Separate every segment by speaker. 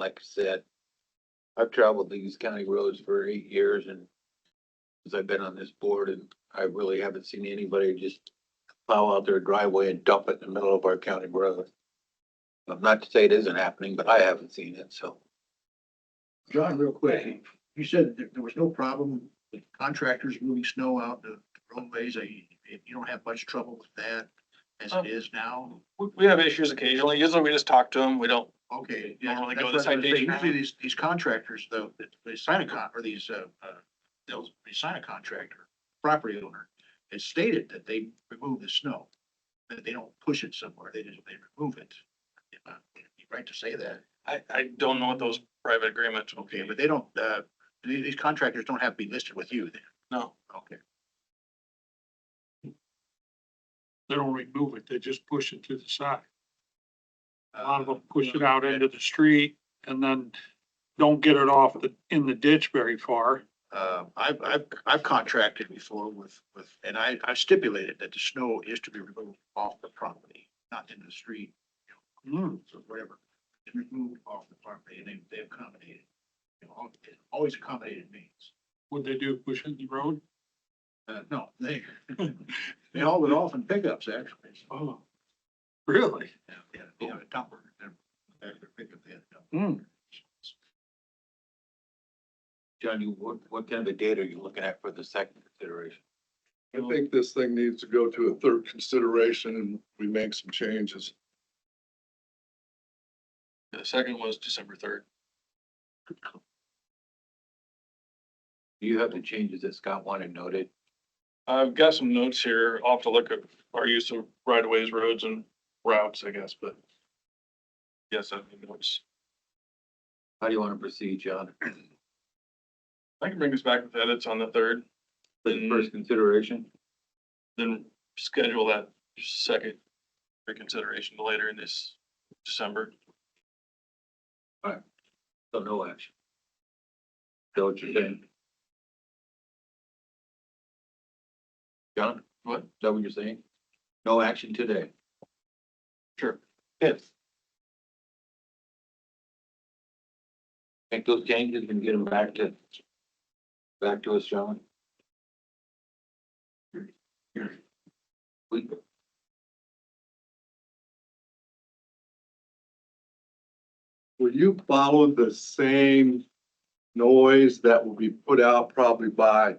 Speaker 1: like I said, I've traveled these county roads for eight years and since I've been on this board and I really haven't seen anybody just plow out their driveway and dump it in the middle of our county road. Um, Not to say it isn't happening, but I haven't seen it, so.
Speaker 2: John, real quick, you said that there was no problem with contractors moving snow out the roadways. I, you don't have much trouble with that as
Speaker 3: Um,
Speaker 2: it is now.
Speaker 3: We, we have issues occasionally. Usually we just talk to them. We don't,
Speaker 2: Okay.
Speaker 3: You don't really go
Speaker 2: that's what I was gonna say.
Speaker 3: the citation route.
Speaker 2: Usually these, these contractors though, that they sign a con, or these, uh, uh, they'll, they sign a contract or property owner. It's stated that they remove the snow, that they don't push it somewhere. They just, they remove it. Uh, You're right to say that.
Speaker 3: I, I don't know what those private agreements will
Speaker 2: Okay,
Speaker 3: be,
Speaker 2: but
Speaker 3: but
Speaker 2: they don't, uh, these these contractors don't have to be listed with you then.
Speaker 3: no.
Speaker 2: Okay.
Speaker 4: They don't remove it, they just push it to the side. A lot of
Speaker 2: Uh,
Speaker 4: them push it out into the street and then don't get it off the, in the ditch very far.
Speaker 2: Uh, I've, I've, I've contracted before with, with, and I, I stipulated that the snow is to be removed off the property, not in the street,
Speaker 4: Hmm,
Speaker 2: or whatever. It's Removed off the property, and they, they accommodated. You know, al- it Always accommodated means.
Speaker 4: what'd they do, push it in the road?
Speaker 2: Uh, no, they, they haul it off in pickups, actually.
Speaker 4: Oh. Really?
Speaker 2: Yeah, yeah, they had a dumper, and after pickup, they had a dumper.
Speaker 4: Hmm,
Speaker 1: John, you, what, what kind of a date are you looking at for the second consideration?
Speaker 5: I think this thing needs to go to a third consideration and we make some changes.
Speaker 3: The second was December third.
Speaker 1: Do you have the changes that Scott wanted noted?
Speaker 3: I've got some notes here. I'll have to look at our use of right of ways, roads and routes, I guess, but. Yes, I have notes.
Speaker 1: How do you want to proceed, John?
Speaker 3: I can bring this back with edits on the third,
Speaker 1: For the first consideration?
Speaker 3: then schedule that second reconsideration to later in this December.
Speaker 1: So no action. Is that what you're saying? John?
Speaker 3: What?
Speaker 1: Is that what you're saying? No action today.
Speaker 3: Sure.
Speaker 1: Yes. Make those changes and get them back to, back to us, John. We,
Speaker 5: Will you follow the same noise that will be put out probably by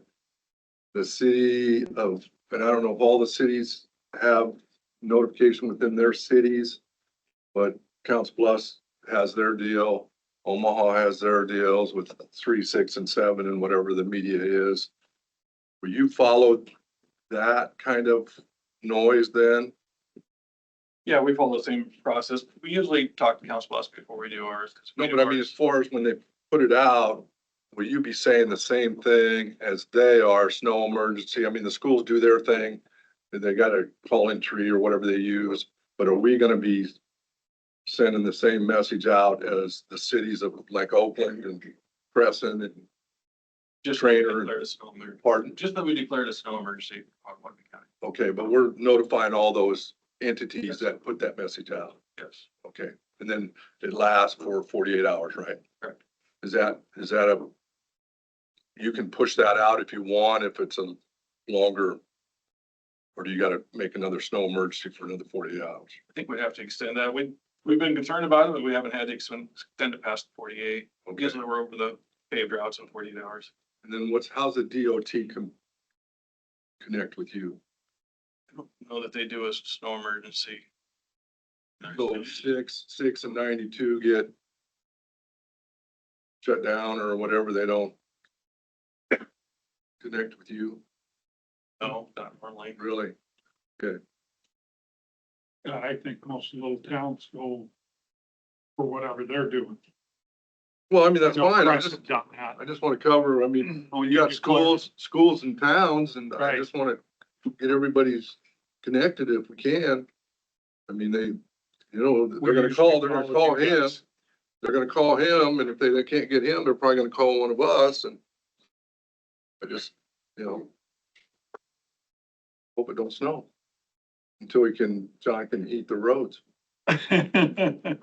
Speaker 5: the city of, and I don't know if all the cities have notification within their cities, but Council Bluffs has their deal, Omaha has their deals with three, six, and seven, and whatever the media is. Will you follow that kind of noise then?
Speaker 3: Yeah, we follow the same process. We usually talk to council boss before we do ours. 'cause we
Speaker 5: No,
Speaker 3: do
Speaker 5: but I mean,
Speaker 3: ours-
Speaker 5: as far as when they put it out, will you be saying the same thing as they are, snow emergency? I mean, the schools do their thing. and They got a call-in tree or whatever they use, but are we gonna be sending the same message out as the cities of like Oakland and Crescent and
Speaker 3: Just
Speaker 5: Trainer.
Speaker 3: declare a snow emergency.
Speaker 5: Pardon?
Speaker 3: Just that we declared a snow emergency on Wyndham County.
Speaker 5: Okay, but we're notifying all those entities that put that message out.
Speaker 3: Yes.
Speaker 5: Okay, and then it lasts for forty-eight hours, right?
Speaker 3: Correct.
Speaker 5: Is that, is that a, you can push that out if you want, if it's a longer, or do you gotta make another snow emergency for another forty-eight hours?
Speaker 3: I think we'd have to extend that. We, we've been concerned about it, but we haven't had to extend, extend it past forty-eight.
Speaker 5: Okay,
Speaker 3: Usually we're over the paved routes in forty-eight hours.
Speaker 5: and then what's, how's the DOT com- connect with you?
Speaker 3: I don't Know that they do a s- snow emergency.
Speaker 5: So six, six and ninety-two get shut down or whatever, they don't connect with you,
Speaker 3: No, not normally.
Speaker 5: really?
Speaker 4: yeah, I think most little towns go for whatever they're doing.
Speaker 5: Well, I mean, that's
Speaker 4: No
Speaker 5: fine, I just,
Speaker 4: precedent on that.
Speaker 5: I just want to cover, I mean,
Speaker 4: When
Speaker 5: you got schools, schools and towns, and I
Speaker 4: Right.
Speaker 5: just want to get everybody's connected if we can. I mean, they, you know, they're gonna call, they're gonna call him, they're gonna call him, and if they, they can't get him, they're probably gonna call one of us, and I just, you know, hope it don't snow until we can, John can heat the roads.
Speaker 4: him.